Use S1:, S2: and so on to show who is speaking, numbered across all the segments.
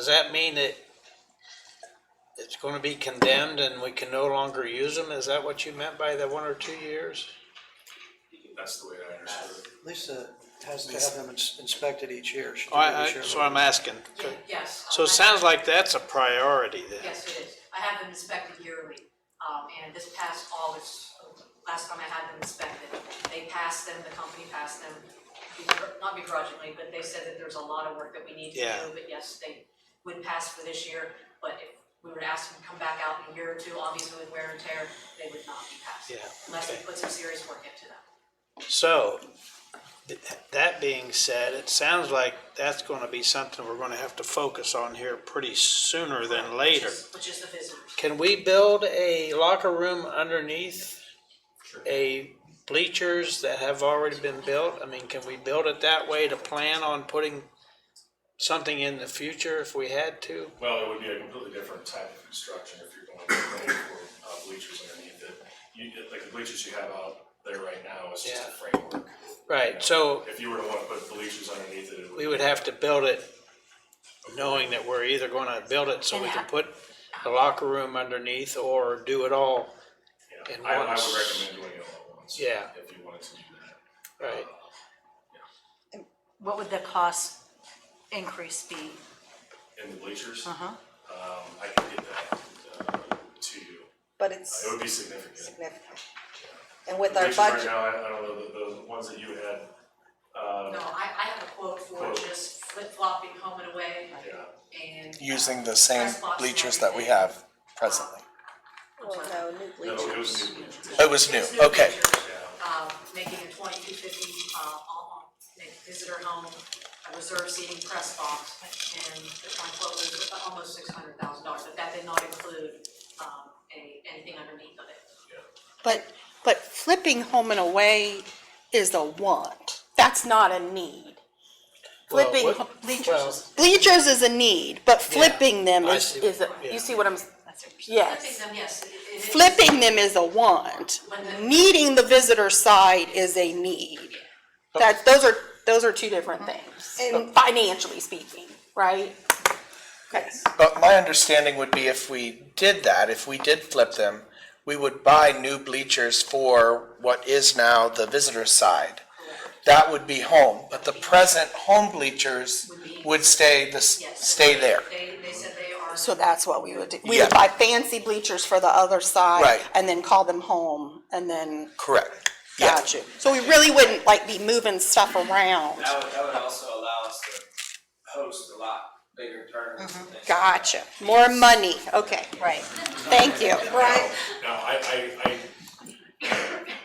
S1: Does that mean that it's gonna be condemned and we can no longer use them? Is that what you meant by the one or two years?
S2: That's the way I understood it.
S3: Lisa has to have them ins- inspected each year. She
S1: Oh, I, I,
S3: does it each
S1: so
S3: year.
S1: I'm asking.
S4: Yes. um,
S1: So it sounds like that's a priority then.
S4: Yes, it is. I have them inspected yearly. Um, and this past August, last time I had them inspected, they passed them, the company passed them, begr- not begrudgingly, but they said that there's a lot of work that we need to
S1: Yeah.
S4: do. But yes, they would pass for this year, but if we were to ask them to come back out in a year or two, obviously with wear and tear, they would not be passed.
S1: Yeah,
S4: Unless we
S1: okay.
S4: put some serious work into them.
S1: So, th- that being said, it sounds like that's gonna be something we're gonna have to focus on here pretty sooner than
S4: Which
S1: later.
S4: is- Which is the visitors.
S1: Can we build a locker room underneath a bleachers that have already been built? I mean, can we build it that way to plan on putting something in the future if we had to?
S2: Well, it would be a completely different type of construction if you're going to go for uh, bleachers underneath it. You, like the bleachers you have out there right now is just a framework.
S1: Right, so
S2: If you were to want to put bleachers underneath it, it
S1: we
S2: would,
S1: would have to build it knowing that we're either gonna build it so we can put the locker room underneath or do it all,
S2: yeah.
S1: and
S2: I, I
S1: once-
S2: would recommend doing it all at once.
S1: Yeah.
S2: If you wanted to do that.
S1: right?
S5: What would the cost increase be?
S2: And the bleachers, um,
S5: Uh-huh.
S2: I can get that, uh, to you.
S6: But
S2: It
S6: it's
S2: would be significant.
S6: significant. And with our
S2: Bleachers right
S6: budget,
S2: now, I, I don't know, the, the ones that you had, uh,
S4: No, I, I have a quote for
S2: Quote.
S4: just flip flopping home and away
S2: yeah.
S4: and. uh,
S7: using the same
S4: press box and
S7: bleachers that we
S4: everything.
S7: have presently.
S6: well, no, new
S2: No, it was
S6: bleachers.
S2: new bleachers.
S7: It was new,
S4: It's
S7: okay.
S4: features,
S2: Yeah.
S4: Um, making a twenty-two fifty, uh, on, visitor home, a reserve seating press box, and my quote was almost six hundred thousand dollars, but that did not include, um, any, anything underneath of it.
S8: But, but flipping home and away is a want. That's not a need.
S1: Well,
S8: Flipping
S1: what-
S8: ho-
S1: well,
S8: bleachers, bleachers is a need, but flipping them
S1: I
S8: is,
S1: see
S8: is, a-
S1: what- yeah.
S8: you see what I'm,
S5: That's what you're
S4: Flipping
S8: yes.
S4: them, yes, it- it is.
S8: Flipping them is a want.
S4: When the-
S8: Needing the visitor side is a need.
S1: Oh.
S8: That, those are, those are two different
S5: Mm-hmm.
S8: things,
S6: And-
S8: financially speaking, right? Yes.
S7: But my understanding would be if we did that, if we did flip them, we would buy new bleachers for what is now the visitor side. That would be home, but the present home bleachers would stay the, s-
S4: Yes.
S7: stay there.
S4: They, they said they are.
S8: So that's what we would do. We
S7: Yeah.
S8: would buy fancy bleachers for the other side.
S7: Right.
S8: And then call them home and then.
S7: Correct. Yeah.
S8: Got you. So we really wouldn't like be moving stuff around.
S9: That would, that would also allow us to host a lot bigger tournaments
S6: Mm-hmm.
S9: and things.
S8: Gotcha. More money. Okay.
S5: Right.
S8: Thank you.
S6: Right,
S2: Now, I, I, I,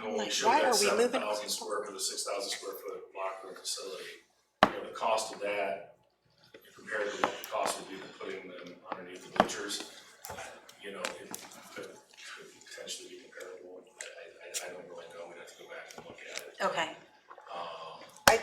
S2: when we
S8: Like,
S2: showed
S8: why are
S2: that
S8: we
S2: seven
S8: moving-
S2: thousand square foot, the six thousand square foot locker room facility, you know, the cost of that compared to what the cost would be to putting them underneath the bleachers, you know, it could, could potentially be comparable. I, I, I don't really know, we'd have to go back and look at it.
S5: Okay.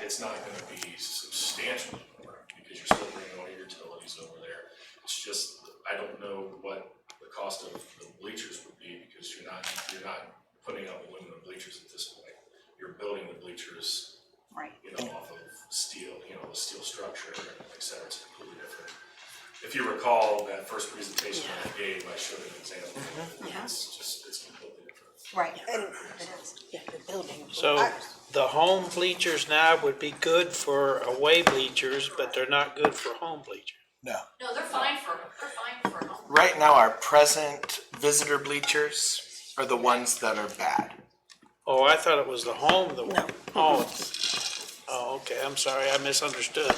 S2: It's not gonna be substantially more, because you're still bringing all your utilities over there. It's just, I don't know what the cost of the bleachers would be, because you're not, you're not putting up aluminum bleachers at this point. You're building the bleachers,
S5: Right.
S2: you know, off of steel, you know, the steel structure, et cetera, it's completely different. If you recall, that first presentation I gave, I showed an example. It's just, it's completely different.
S5: Right.
S6: and
S1: So the home bleachers now would be good for away bleachers, but they're not good for home bleachers.
S7: No.
S4: No, they're fine for, they're fine for home.
S7: Right now, our present visitor bleachers are the ones that are bad.
S1: Oh, I thought it was the home that. No. Oh, it's- oh, okay, I'm sorry, I misunderstood.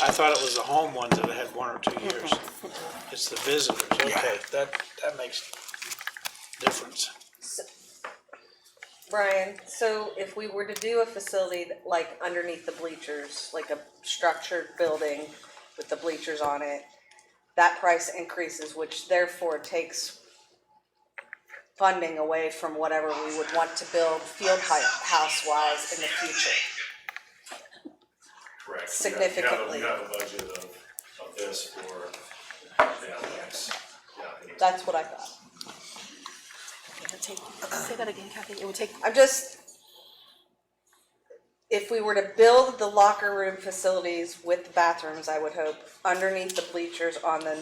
S1: I thought it was the home ones that had one or two years. It's the visitors, okay, that, that makes difference.
S6: Brian, so if we were to do a facility that- like underneath the bleachers, like a structured building with the bleachers on it, that price increases, which therefore takes funding away from whatever we would want to build field house wise in the future.
S2: Correct. You have- you have a-
S6: Significantly.
S2: You have a budget of, of this for, yeah, that's, yeah.
S6: That's what I thought.
S8: Say that again, Kathy. It would take
S6: I'm just, if we were to build the locker room facilities with bathrooms, I would hope, underneath the bleachers on the